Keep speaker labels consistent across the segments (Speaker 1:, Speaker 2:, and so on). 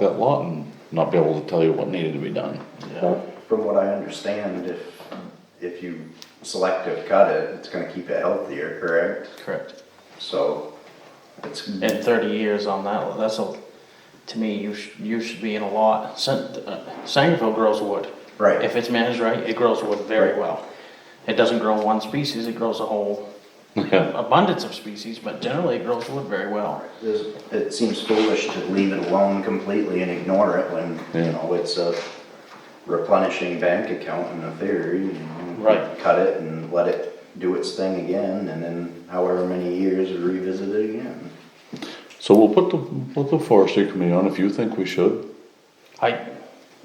Speaker 1: that lot and not be able to tell you what needed to be done.
Speaker 2: From what I understand, if, if you selective cut it, it's gonna keep it healthier, correct?
Speaker 3: Correct.
Speaker 2: So it's,
Speaker 3: And thirty years on that, that's a, to me, you should, you should be in a lot, San- uh, Sangerville grows wood.
Speaker 2: Right.
Speaker 3: If it's managed right, it grows wood very
Speaker 2: Right.
Speaker 3: well. It doesn't grow one species, it grows a whole
Speaker 1: Yeah,
Speaker 3: abundance of species, but generally it grows wood very well.
Speaker 2: there's- it seems foolish to leave it alone completely and ignore it when,
Speaker 1: Yeah.
Speaker 2: you know, it's a replenishing bank account in a theory. you know.
Speaker 3: Right.
Speaker 2: Cut it and let it do its thing again, and then however many years revisit it again.
Speaker 1: so we'll put the, put the forestry committee on if you think we should,
Speaker 3: I,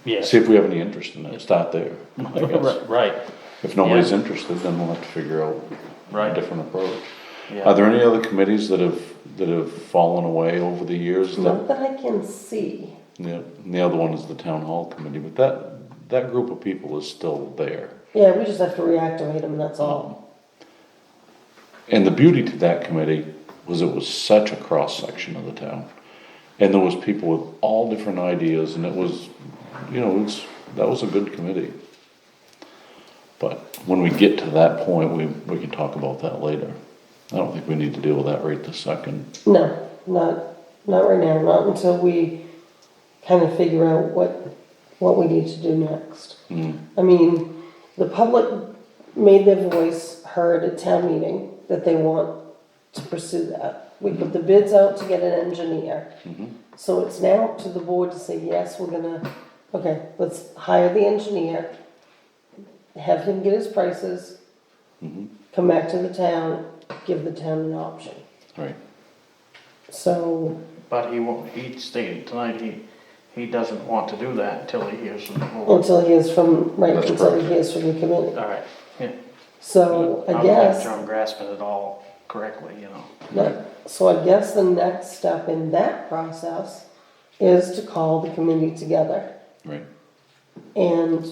Speaker 3: yeah.
Speaker 1: see if we have any interest in it, start there, I guess.
Speaker 3: Right, right,
Speaker 1: If nobody's interested, then we'll have to figure out a
Speaker 3: Right.
Speaker 1: different approach. Are
Speaker 3: yeah.
Speaker 1: there any other committees that have, that have fallen away over the years? that-
Speaker 4: Not that I can see.
Speaker 1: Yeah, and the other one is the town hall committee, but that, that group of people is still there.
Speaker 4: Yeah, we just have to reactivate them, that's all.
Speaker 1: And the beauty to that committee was it was such a cross section of the town. And there was people with all different ideas and it was, you know, it's, that was a good committee. But when we get to that point, we, we can talk about that later. I don't think we need to deal with that right this second.
Speaker 4: No, not, not right now, not until we kind of figure out what, what we need to do next. I mean, the public made their voice heard at town meeting that they want to pursue that. We put the bids out to get an engineer. So it's now up to the board to say, yes, we're gonna, okay, let's hire the engineer, have him get his prices, come back to the town, give the town an option.
Speaker 1: Right.
Speaker 4: So,
Speaker 3: But he won't, he stated tonight, he, he doesn't want to do that until he hears from the board.
Speaker 4: until he is from, right,
Speaker 1: That's
Speaker 4: until he
Speaker 1: correct.
Speaker 4: hears from the committee.
Speaker 3: All right, yeah.
Speaker 4: So I
Speaker 3: I'm not
Speaker 4: guess,
Speaker 3: sure I'm grasping it all correctly, you know.
Speaker 4: that- so I guess the next step in that process is to call the committee together.
Speaker 1: Right,
Speaker 4: And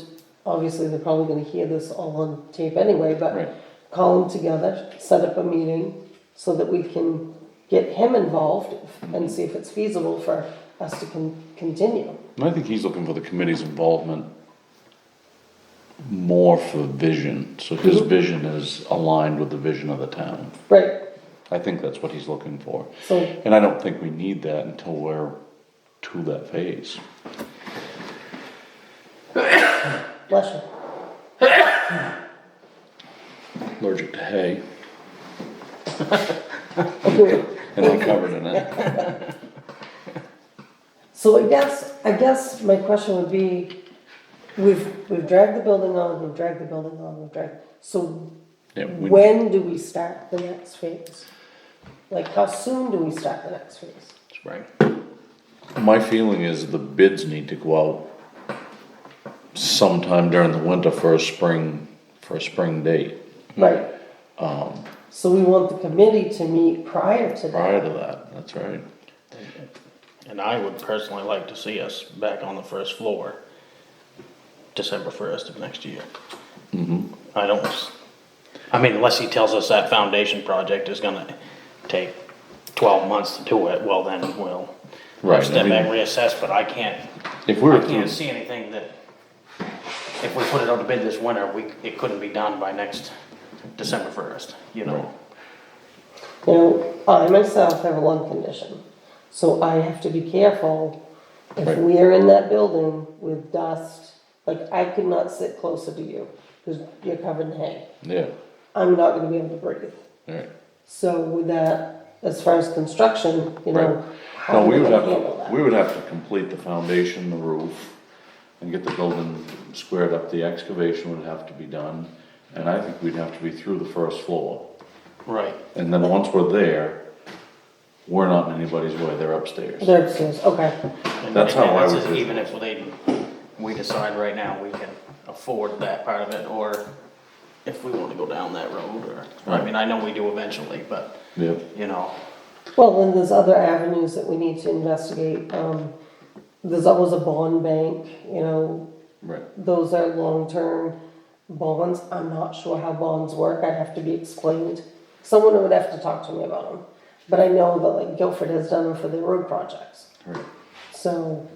Speaker 4: obviously, they're probably gonna hear this all on tape anyway,
Speaker 1: Right.
Speaker 4: but call them together, set up a meeting so that we can get him involved and see if it's feasible for us to con- continue.
Speaker 1: and I think he's looking for the committee's involvement more for vision, so his vision is aligned with the vision of the town.
Speaker 4: Right,
Speaker 1: I think that's what he's looking for.
Speaker 4: so
Speaker 1: And I don't think we need that until we're to that phase.
Speaker 4: bless you.
Speaker 1: Allergic to hay,
Speaker 4: Agreed.
Speaker 1: and I'm covered in it.
Speaker 4: So I guess, I guess my question would be, we've, we've dragged the building on, we've dragged the building on, we've dragged, so
Speaker 1: Yeah, we-
Speaker 4: when do we start the next phase? Like, how soon do we start the next phase?
Speaker 3: Spring.
Speaker 1: My feeling is the bids need to go out sometime during the winter for a spring, for a spring date,
Speaker 4: Right.
Speaker 1: Um,
Speaker 4: So we want the committee to meet prior to that.
Speaker 1: prior to that, that's right.
Speaker 3: And I would personally like to see us back on the first floor, December first of next year.
Speaker 1: Mm-hmm.
Speaker 3: I don't, s- I mean, unless he tells us that foundation project is gonna take twelve months to do it, well then we'll
Speaker 1: Right, I
Speaker 3: step back,
Speaker 1: mean-
Speaker 3: reassess, but I can't,
Speaker 1: If we
Speaker 3: I
Speaker 1: were
Speaker 3: can't
Speaker 1: through,
Speaker 3: see anything that, if we put it out to bid this winter, we, it couldn't be done by next December first, you know?
Speaker 4: Now, I myself have a lung condition, so I have to be careful if
Speaker 1: Right.
Speaker 4: we are in that building with dust, like, I could not sit closer to you, because you're covered in hay.
Speaker 1: yeah,
Speaker 4: I'm not gonna be able to breathe.
Speaker 1: alright.
Speaker 4: So with that, as far as construction, you
Speaker 1: Right.
Speaker 4: know, how
Speaker 1: No,
Speaker 4: do
Speaker 1: we
Speaker 4: we
Speaker 1: would have,
Speaker 4: handle
Speaker 1: to- we
Speaker 4: that?
Speaker 1: would have to complete the foundation, the roof, and get the building squared up. The excavation would have to be done, and I think we'd have to be through the first floor.
Speaker 3: Right.
Speaker 1: And then once we're there, we're not in anybody's way, they're upstairs.
Speaker 4: They're upstairs, okay,
Speaker 3: And-
Speaker 1: That's
Speaker 3: and
Speaker 1: how I
Speaker 3: that's
Speaker 1: would
Speaker 3: if-
Speaker 1: do it.
Speaker 3: Even if they, we decide right now we can afford that part of it, or if we want to go down that road, or, I
Speaker 1: Right.
Speaker 3: mean, I know we do eventually, but,
Speaker 1: Yep,
Speaker 3: you know,
Speaker 4: well, then there's other avenues that we need to investigate, um, there's always a bond bank, you know,
Speaker 1: right.
Speaker 4: those are long-term bonds, I'm not sure how bonds work, I'd have to be explained. Someone would have to talk to me about them, but I know that like Guilford has done them for their road projects,
Speaker 1: Right.
Speaker 4: so